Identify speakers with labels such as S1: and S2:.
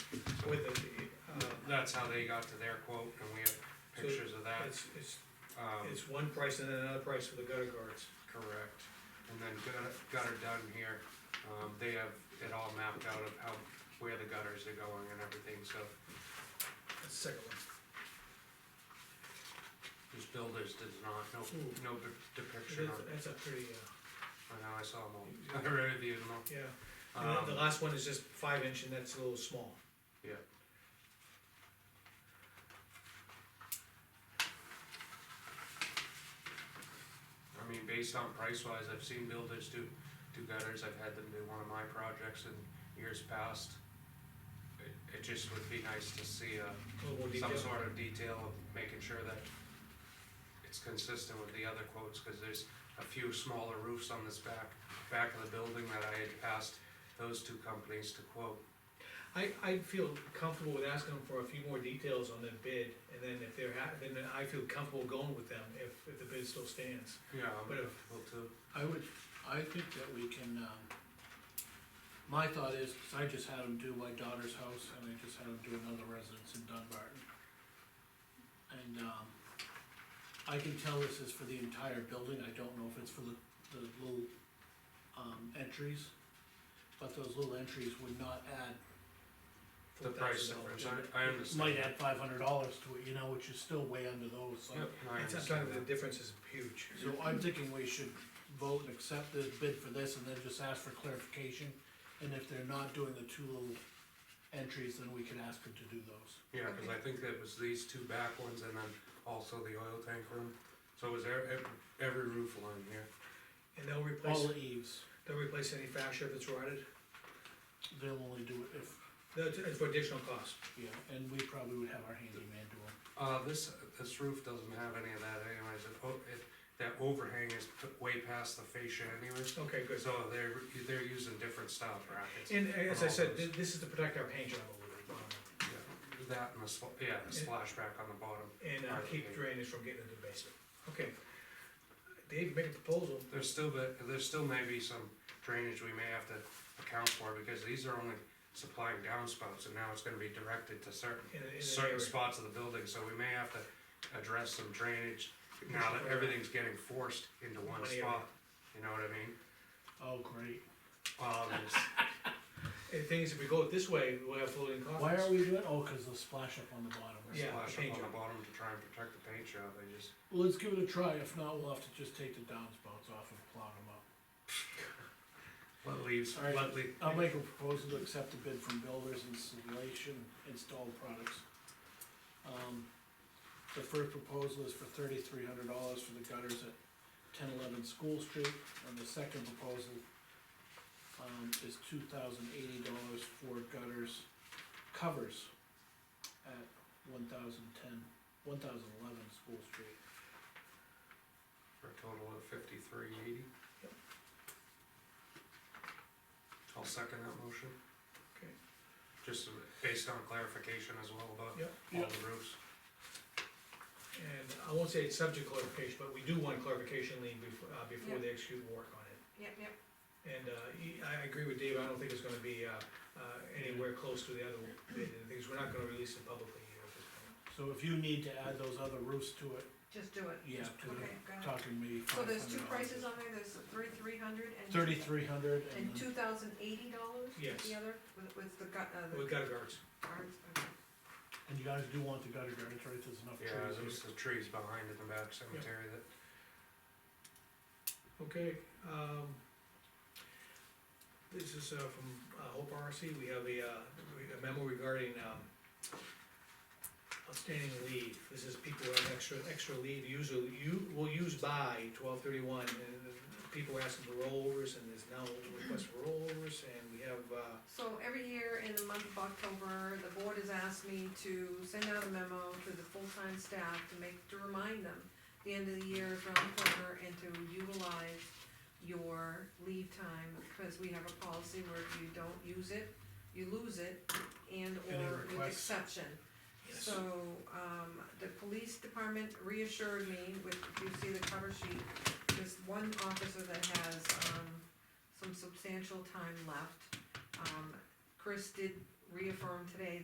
S1: with the, uh,
S2: That's how they got to their quote, and we have pictures of that,
S1: it's, it's,
S2: um,
S1: it's one price and then another price for the gutter guards.
S2: correct. And then gutter, gutter done here, um, they have it all mapped out of how, where the gutters are going and everything, so
S1: That's the second one.
S2: these builders did not, no,
S1: Ooh.
S2: no de- depiction on,
S1: That's, that's a pretty, uh,
S2: I know, I saw them all, I reviewed them all.
S1: yeah. And then the
S2: Um,
S1: last one is just five inch and that's a little small.
S2: yeah. I mean, based on price wise, I've seen builders do, do gutters, I've had them do one of my projects in years past. It, it just would be nice to see a,
S1: A little more
S2: some
S1: detail.
S2: sort of detail of making sure that it's consistent with the other quotes, cause there's a few smaller roofs on this back, back of the building that I had asked those two companies to quote.
S1: I, I'd feel comfortable with asking them for a few more details on the bid, and then if they're ha- then I feel comfortable going with them if, if the bid still stands.
S2: Yeah, I'm
S1: But if-
S2: comfortable too.
S3: I would, I think that we can, um, my thought is, 'cause I just had them do my daughter's house, and I just had them do another residence in Dunbarton. And, um, I can tell this is for the entire building, I don't know if it's for the, the little, um, entries. But those little entries would not add,
S2: The price difference, I, I understand.
S3: might add five hundred dollars to it, you know, which is still way under those, so.
S2: Yep, I
S1: That's, I'm
S2: understand
S1: talking, the
S2: that.
S1: difference is huge.
S3: So I'm thinking we should vote and accept the bid for this and then just ask for clarification. And if they're not doing the two little entries, then we can ask them to do those.
S2: Yeah, cause I think that was these two back ones and then also the oil tank room. So it was every, every roof line here.
S1: And they'll
S3: All
S1: replace,
S3: the eaves,
S1: they'll replace any fascia that's rotted,
S3: they'll only do it if,
S1: that's, it's for additional cost.
S3: yeah, and we probably would have our handyman do them.
S2: Uh, this, this roof doesn't have any of that anyways, it, o- it, that overhang is p- way past the fascia anyways.
S1: Okay, good.
S2: So they're, they're using different style brackets.
S1: And uh, as I said, thi- this is to protect our paint job a little
S2: Yeah, That and the spl- yeah, the splashback on the bottom.
S1: bit, and uh, keep drainage from getting into the basement. Okay. Dave, make a proposal.
S2: There's still, but there's still maybe some drainage we may have to account for, because these are only supplying downspouts, and now it's gonna be directed to certain,
S1: in a- in an
S2: certain
S1: area.
S2: spots of the building, so we may have to address some drainage, now that everything's getting forced into one
S1: One area.
S2: spot, you know what I mean?
S3: Oh, great.
S2: Um, it's-
S1: And The thing is, if we go this way, we'll have floating
S3: Why are
S1: costs.
S3: we doing, oh, cause the splash up on the bottom.
S2: there's
S1: Yeah,
S2: splash up
S1: paint
S2: on the
S1: job.
S2: bottom to try and protect the paint job, they just,
S3: Well, let's give it a try. If not, we'll have to just take the downspouts off and plow them up.
S2: let leaves,
S3: All right.
S2: let le-
S3: I'll make a proposal to accept a bid from Builders Installation Installed Products. Um, The first proposal is for thirty-three hundred dollars for the gutters at ten eleven School Street, and the second proposal um, is two thousand eighty dollars for gutters covers at one thousand ten, one thousand eleven School Street.
S2: for a total of fifty-three eighty.
S1: Yep.
S2: I'll second that motion.
S1: Okay.
S2: Just based on clarification as well about
S1: Yep.
S2: all the roofs.
S1: And I won't say it's subject clarification, but we do want clarification lien before, uh, before they execute work on it.
S4: Yep, yep,
S1: And, uh, he- I agree with Dave, I don't think it's gonna be, uh, uh, anywhere close to the other, the things, we're not gonna release it publicly here at this point.
S3: So if you need to add those other roofs to it,
S4: just do it.
S3: yeah,
S4: Just-
S3: 'cause
S4: Okay,
S3: we're
S4: got it.
S3: talking maybe
S4: So
S3: five hundred
S4: there's two prices on there, there's thirty-three hundred and.
S3: Thirty-three hundred and
S4: And
S3: then-
S4: two thousand eighty dollars?
S1: Yes.
S4: The other, with, with the gut, uh,
S1: We
S4: the
S1: got guards,
S4: cards, okay.
S3: And you guys do want the gutter guards, right, there's enough
S2: Yeah,
S3: trees
S2: there's the trees behind in the back cemetery that,
S1: okay, um, this is, uh, from, uh, Hope RC, we have a, uh, re- a memo regarding, um, outstanding leave, this is people who have extra, extra leave, usually, you, will use by twelve thirty-one, and the people are asking for rollovers, and there's now requests for rollovers, and we have, uh,
S4: So every year in the month of October, the board has asked me to send out a memo to the full-time staff to make, to remind them the end of the year is around the corner and to utilize your leave time, because we have a policy where if you don't use it, you lose it, and
S3: And a
S4: or with
S3: request.
S4: exception.
S1: Yes.
S4: So, um, the police department reassured me with, if you see the cover sheet, there's one officer that has, um, some substantial time left. Um, Chris did reaffirm today